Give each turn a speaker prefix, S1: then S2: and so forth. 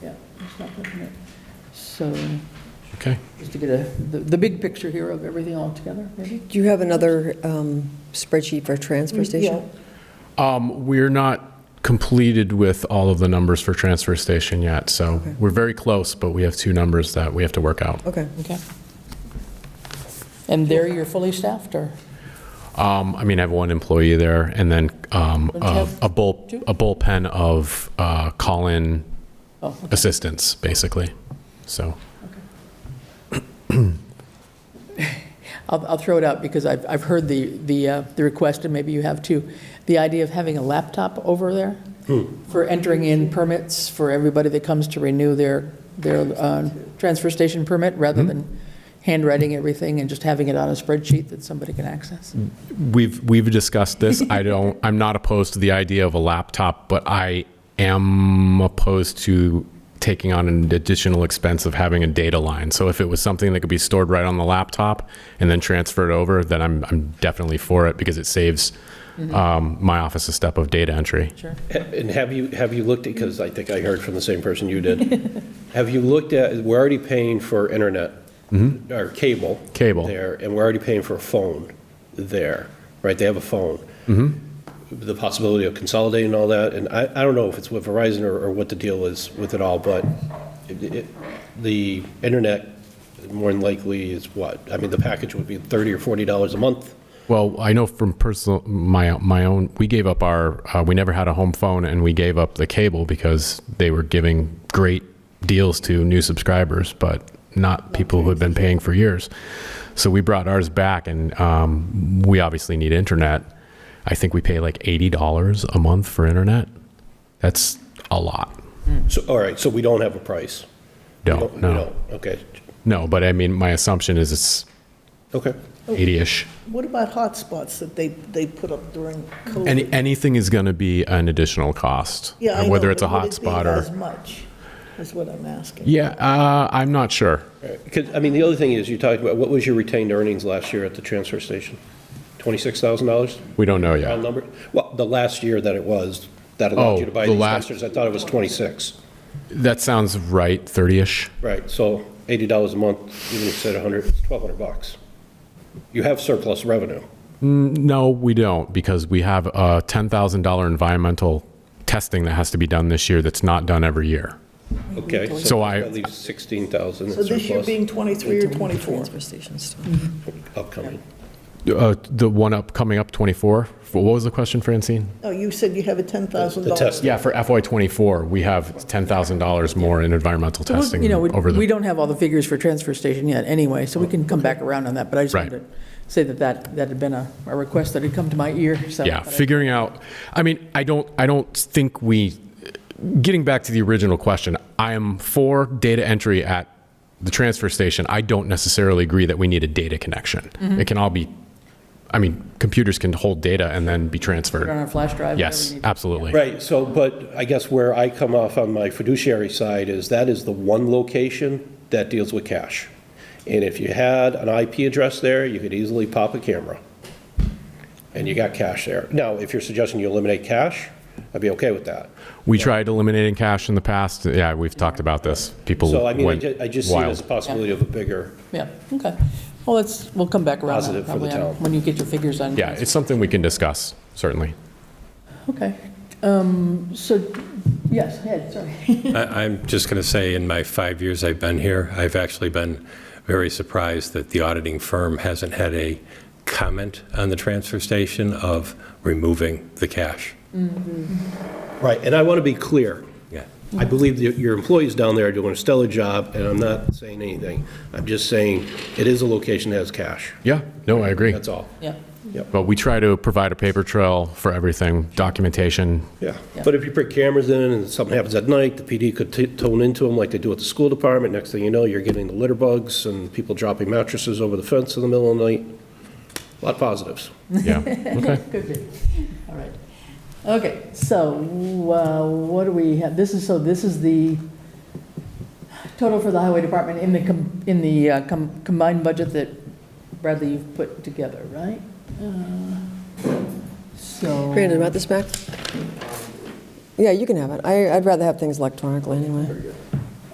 S1: stop looking at- So,
S2: Okay.
S1: just to get a, the, the big picture here of everything all together, maybe?
S3: Do you have another um, spreadsheet for transfer station?
S2: Um, We're not completed with all of the numbers for transfer station yet, so
S3: Okay.
S2: we're very close, but we have two numbers that we have to work out.
S3: Okay.
S1: Okay. And there you're fully staffed, or?
S2: Um, I mean, I have one employee there, and then um,
S1: Don't you
S2: a
S1: have
S2: a bull,
S1: two?
S2: a bullpen of uh, call-in
S1: Oh, okay.
S2: assistants, basically. So,
S1: I'll, I'll throw it out because I've, I've heard the, the, uh, the request, and maybe you have too, the idea of having a laptop over there for entering in permits for everybody that comes to renew their, their uh, transfer station permit, rather than handwriting everything and just having it on a spreadsheet that somebody can access.
S2: we've, we've discussed this. I don't, I'm not opposed to the idea of a laptop, but I am opposed to taking on an additional expense of having a data line. So if it was something that could be stored right on the laptop and then transferred over, then I'm, I'm definitely for it because it saves um, my office a step of data entry.
S1: Sure.
S4: And have you, have you looked at, because I think I heard from the same person you did, have you looked at, we're already paying for internet, or cable.
S2: Mm-hmm. Cable.
S4: There, and we're already paying for a phone there, right? They have a phone.
S2: Mm-hmm.
S4: The possibility of consolidating all that, and I, I don't know if it's with Verizon or, or what the deal is with it all, but it- it- the internet more than likely is what? I mean, the package would be 30 or 40 dollars a month.
S2: Well, I know from personal my my own. We gave up our. Uh, we never had a home phone, and we gave up the cable because they were giving great deals to new subscribers, but not people who had been paying for years. So we brought ours back, and um, we obviously need internet. I think we pay like eighty dollars a month for internet. That's a lot.
S4: So, all right, so we don't have a price. We
S2: No,
S4: don't- we
S2: no,
S4: don't. Okay,
S2: no. But I mean, my assumption is it's
S4: okay.
S2: eighty-ish.
S5: What about hotspots that they, they put up during COVID?
S2: Any, anything is going to be an additional cost,
S5: Yeah, I know,
S2: whether it's a
S5: but would it be
S2: hotspot or.
S5: As much, is what I'm asking.
S2: Yeah, uh, I'm not sure.
S4: Because, I mean, the other thing is, you talked about, what was your retained earnings last year at the transfer station? $26,000?
S2: We don't know
S4: Round
S2: yet.
S4: number? Well, the last year that it was, that allowed you
S2: Oh,
S4: to buy
S2: the
S4: these
S2: last-
S4: dumpsters, I thought it was 26.
S2: That sounds right, 30-ish.
S4: Right, so $80 a month, even if you said 100, it's 1,200 bucks. You have surplus revenue.
S2: No, we don't, because we have a $10,000 environmental testing that has to be done this year that's not done every year.
S4: Okay,
S2: So
S4: so
S2: I-
S4: that leaves 16,000 in
S5: Mm-hmm. So this year
S4: surplus
S5: being 23 or 24?
S3: Transfer station stuff.
S4: upcoming.
S2: Uh, The one up, coming up 24, what was the question, Francine?
S5: Oh, you said you have a $10,000.
S4: The test.
S2: Yeah, for FY '24, we have $10,000 more in environmental
S1: So we-
S2: testing
S1: You know, we-
S2: over
S1: we
S2: the, Oh,
S1: don't have all the figures for transfer station yet, anyway, so we can come back around on that, but I just wanted
S2: Right.
S1: to say that that, that had been a, a request that had come to my ear, so.
S2: yeah,
S1: but I-
S2: figuring out, I mean, I don't, I don't think we, getting back to the original question, I am for data entry at the transfer station. I don't necessarily agree that we need a data connection.
S1: Mm-hmm.
S2: It can all be, I mean, computers can hold data and then be
S1: Put it
S2: transferred.
S1: on a flash drive. whatever
S2: Yes,
S1: you need.
S2: absolutely.
S4: Right, so, but I guess where I come off on my fiduciary side is that is the one location that deals with cash. And if you had an IP address there, you could easily pop a camera. And you got cash there. Now, if you're suggesting you eliminate cash, I'd be okay with that.
S2: We tried eliminating cash in the past. Yeah, we've talked about this. People
S4: So I mean, I
S2: went
S4: ju- I just see it
S2: wild.
S4: as a possibility of a bigger,
S1: Yeah, okay. Well, let's, we'll come back around. on it
S4: Positive for the
S1: probably on-
S4: town.
S1: When you get your figures on.
S2: Yeah, it's something we can discuss, certainly.
S1: Okay. Um, So, yes, Ed, sorry.
S6: I- I'm just going to say, in my five years I've been here, I've actually been very surprised that the auditing firm hasn't had a comment on the transfer station of removing the cash.
S4: right, and I want to be clear.
S6: Yeah.
S4: I believe that your employees down there are doing a stellar job, and I'm not saying anything. I'm just saying it is a location that has cash,
S2: Yeah, no, I agree.
S4: that's all.
S1: Yeah.
S2: But we try to provide a paper trail for everything, documentation.
S4: Yeah, but if you put cameras in and something happens at night, the PD could t- tone into them like they do at the school department. Next thing you know, you're getting the litter bugs and people dropping mattresses over the fence in the middle of the night. A Lot of positives.
S2: Yeah, okay.
S1: Good, good. All right. Okay, so uh, what do we have? This is, so this is the total for the highway department in the, com- in the uh, com- combined budget that Bradley, you've put together, right? Uh, So.
S3: Brandon, about this back? Yeah, you can have it. I, I'd rather have things electronically anyway.